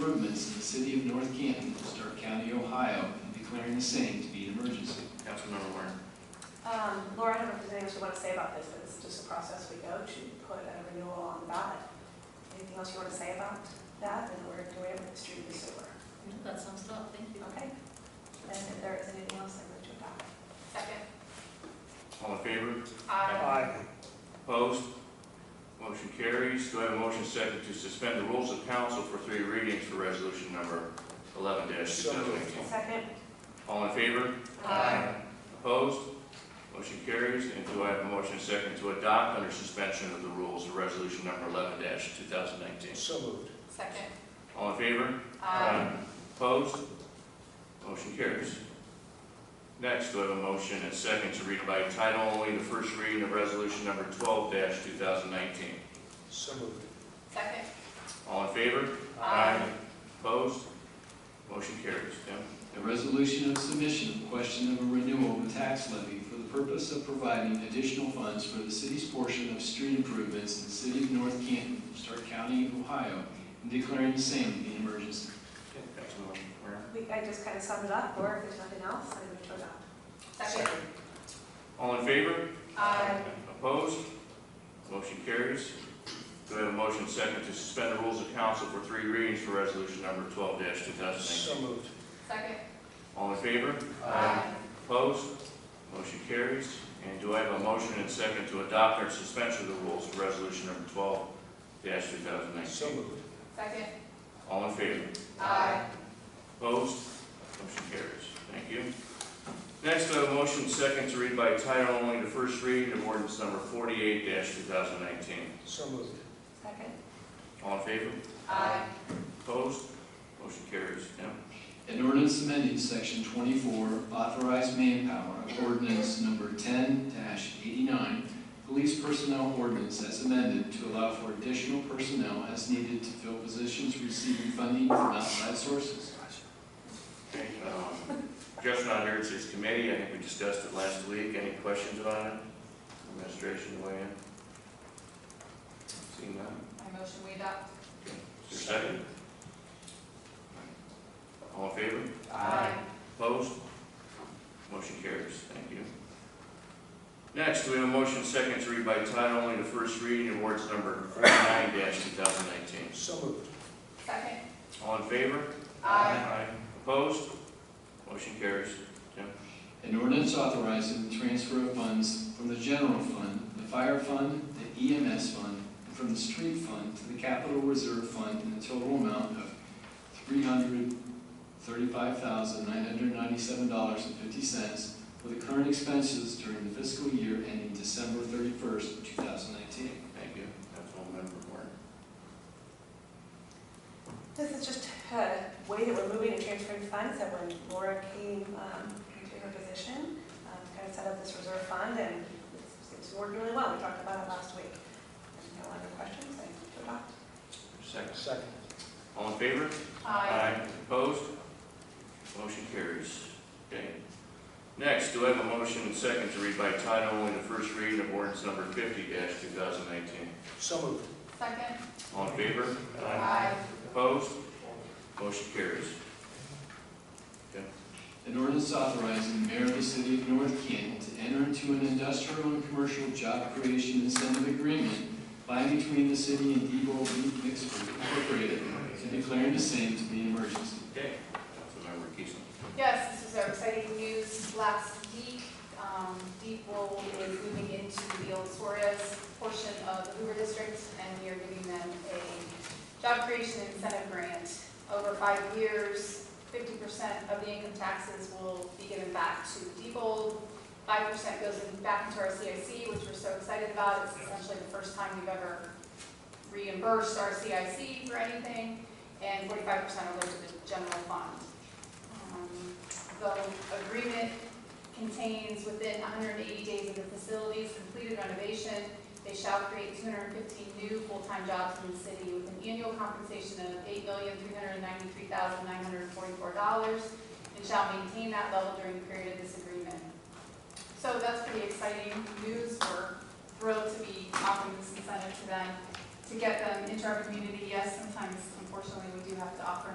city of North Canton, Stark County, Ohio, and declaring the same to be an emergency. Councilmember Warren. Um, Laura, I don't know if there's anything else you want to say about this, but it's just a process we go to put a renewal on the ballot. Anything else you want to say about that, and we're doing it with the street and sewer? That sounds tough, thank you. Okay? And if there is anything else, I move to adopt. Second. All in favor? Aye. Opposed? Motion carries. Do I have a motion second to suspend the rules of council for three readings for resolution number eleven two So thousand moved. eighteen? Second? All in favor? Aye. Opposed? Motion carries. And do I have a motion second to adopt under suspension of the rules of resolution number eleven two thousand nineteen? So moved. Second. All in favor? Aye. Opposed? Motion carries. Next, we have a motion and second to read by title only the first reading of resolution number twelve two thousand nineteen. So moved. Second. All in favor? Aye. Opposed? Motion carries. Tim? A resolution of submission of question of a renewal of a tax levy for the purpose of providing additional funds for the city's portion of street improvements in the city of North Canton, Stark County, Ohio, and declaring the same to be an emergency. Councilman Warren. We, I just kind of summed it up, Laura, if there's nothing else, I move to adopt. Second. All in favor? Aye. Opposed? Motion carries. Do I have a motion second to suspend the rules of council for three readings for resolution number twelve two thousand So nineteen? moved. Second. All in favor? Opposed? Motion carries. And do I have a motion and second to adopt or suspension of the rules for resolution number twelve two thousand So nineteen? moved. Second. All in favor? Aye. Opposed? Motion carries. Thank you. Next, I have a motion second to read by title only the first reading of ordinance number forty-eight two thousand nineteen. So moved. Second? All in favor? Aye. Opposed? Motion carries. Tim? An ordinance amending section twenty-four, authorized manpower, of ordinance number ten eighty-nine, police personnel ordinance as amended to allow for additional personnel as needed to fill positions receiving funding from outside sources. Okay, um, Jeff's not here, it's his committee, I think we discussed it last week, any questions on it? Administration weigh in? Seeing none, I motion we adopt. is there a second? All in favor? Opposed? Motion carries, thank you. Next, we have a motion second to read by title only the first reading of ordinance number forty-nine two thousand nineteen. So moved. Second. All in favor? Aye. Opposed? Motion carries. An ordinance authorizing the transfer of funds from the general fund, the fire fund, the EMS fund, and from the street fund to the capital reserve fund in a total amount of three hundred thirty-five thousand nine hundred ninety-seven dollars and fifty cents for the current expenses during the fiscal year ending December thirty-first, two thousand nineteen. Thank you, Councilmember Warren. This is just a way that we're moving and transferring funds, that when Laura came um, into her position, um, kind of set up this reserve fund, and it's- it's worked really well, we talked about it last week. And No other questions, I move to adopt. Second. Second. All in favor? Aye. Opposed? Motion carries. Okay. Next, do I have a motion and second to read by title only the first reading of ordinance number fifty two thousand nineteen? So moved. Second. All in favor? Aye. Opposed? Motion carries. An ordinance authorizing the mayor of the city of North Canton to enter into an industrial and commercial job creation incentive agreement by and between the city and Debo Meat Mixers Incorporated and declaring the same to be an emergency. Okay. Councilmember Keesling. Yes, this was our exciting news last week. Um, Deep Roll is moving into the old Suarez portion of the Hoover District, and we are giving them a job creation incentive grant. Over five years, fifty percent of the income taxes will be given back to Deep Five percent goes in- back into our CIC, which we're so excited about. It's essentially the first time we've ever reimbursed our CIC for anything, and forty-five percent will go to the general fund. Um, The agreement contains within 180 days of the facility's completed renovation, they shall create 215 new full-time jobs in the city with an annual compensation of $8,393,944 and shall maintain that level during the period of this agreement. So that's pretty exciting news. We're thrilled to be offering this incentive to them, to get them into our community. Yes, sometimes unfortunately, we do have to offer